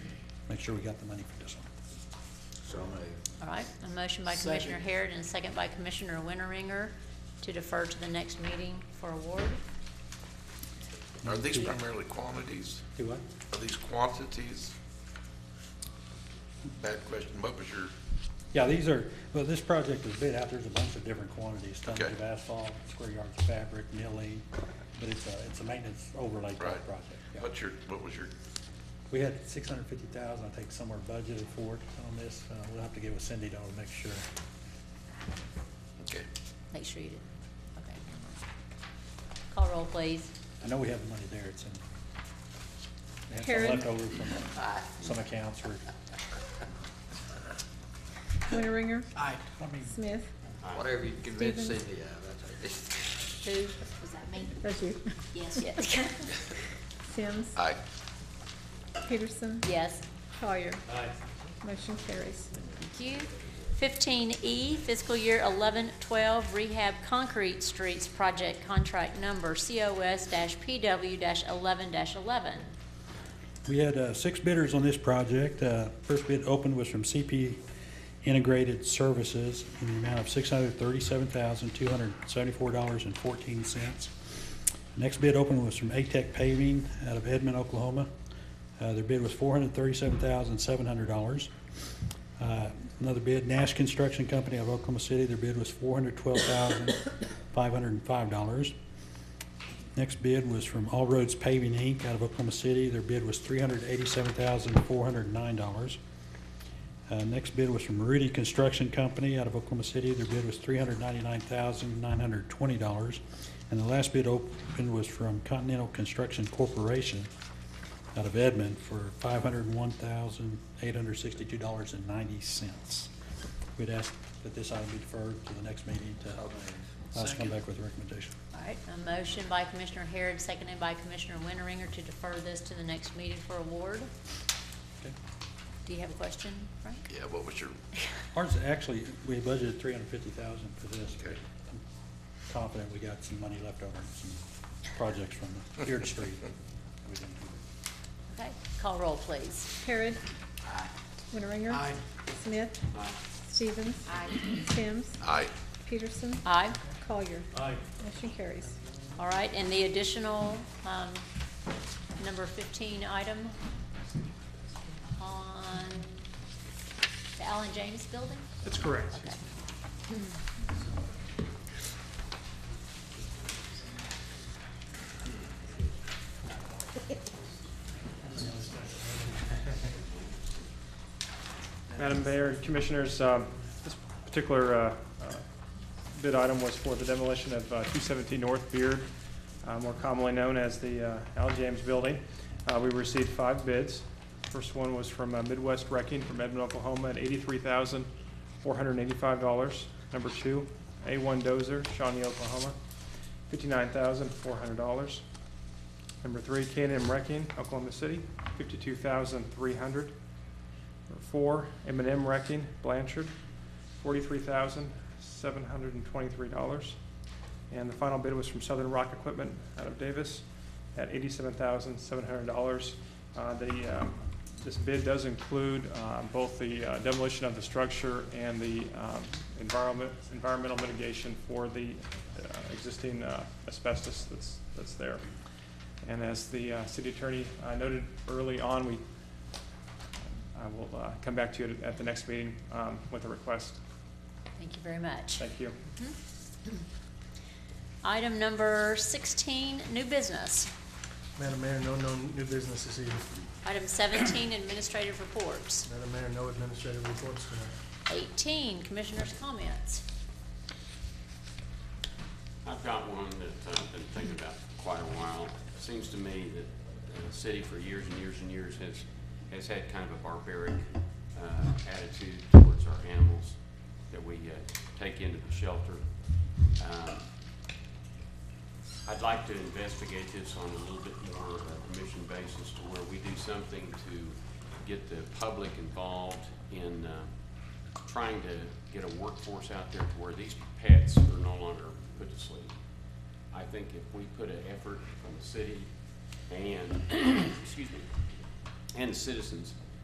make sure we got the money for this one. So moved. All right, a motion by Commissioner Harrod and a second by Commissioner Winteringer to defer to the next meeting for award. Are these primarily quantities? Do what? Are these quantities? Bad question. What was your, Yeah, these are, well, this project is bid out, there's a bunch of different quantities, tons Okay. of asphalt, square yards of fabric, milling, but it's a, it's a maintenance overlay type Right. project. yeah. what's your, what was your, We had six hundred fifty thousand, I think somewhere budgeted for it on this, uh, we'll have to get with Cindy though to make sure. okay. Make sure you did, okay. Call roll, please. I know we have the money there, it's in. They had Karen? some leftover from some accounts or, Winteringer, Aye. I mean, Smith, Whatever you convince Stevens. Cindy of, that's it. Who? Was that me? that's you, Yes. Yes. Sims, Aye. Peterson, Yes. Collier. Motion carries. Thank you. Fifteen E, fiscal year eleven twelve rehab concrete streets project contract number COS PW eleven eleven. We had uh, six bidders on this project. Uh, First bid opened was from CP Integrated Services in the amount of $637,274.14. Next bid opened was from ATEC Paving out of Edmond, Oklahoma. Uh, Their bid was $437,700. Uh, Another bid, Nash Construction Company of Oklahoma City, their bid was $412,505. Next bid was from All Roads Paving, Inc., out of Oklahoma City. Their bid was $387,409. Uh, Next bid was from Rudy Construction Company, out of Oklahoma City. Their bid was $399,920. And the last bid opened was from Continental Construction Corporation, out of Edmond, for $501,862.90. We'd ask that this item be deferred to the next meeting to, us come back with a recommendation. All right, a motion by Commissioner Harrod, seconded by Commissioner Winteringer to defer this to the next meeting for award. Okay. Do you have a question, Frank? Yeah, what was your, Ours, actually, we budgeted three hundred fifty thousand for this. Okay. I'm Confident we got some money left over, some projects from the Beard Street. we didn't do. Okay, call roll, please. Harrod. Winteringer. Smith. Stevens. Sims, aye. Peterson, Aye. Collier. Motion carries. All right, and the additional, um, number fifteen item on the Allen James Building? That's correct. Okay. Madam Mayor and Commissioners, um, this particular uh, uh, bid item was for the demolition of uh, 217 North Beard, uh, more commonly known as the uh, Al James Building. Uh, We received five bids. First one was from uh, Midwest Wrecking from Edmond, Oklahoma, at $83,485. Number two, A1 Dozer, Shawnee, Oklahoma, $59,400. Number three, k and M Wrecking, Oklahoma City, $52,300. Number Four, m and M Wrecking, Blanchard, forty-three thousand, seven hundred and twenty-three dollars. And the final bid was from Southern Rock Equipment out of Davis at eighty-seven thousand, seven hundred dollars. Uh, the, um, this bid does include, uh, both the uh, demolition of the structure and the, um, environment, environmental mitigation for the, uh, existing, uh, asbestos that's, that's there. And as the, uh, city attorney uh, noted early on, we I will uh, come back to you at- at the next meeting um, with a request. Thank you very much. Thank you. Item number sixteen, new business. Madam Mayor, no, no new business this evening. Item seventeen, administrative reports. Madam Mayor, no administrative reports tonight. Eighteen, commissioners' comments. I've got one that I've been thinking about for quite a while. Seems to me that uh, the city for years and years and years has, has had kind of a barbaric uh, attitude towards our animals that we uh, take into the shelter. Um, I'd like to investigate this on a little bit more of a commission basis to where we do something to get the public involved in uh, trying to get a workforce out there to where these pets are no longer put to sleep. I think if we put an effort from the city and, excuse me, and citizens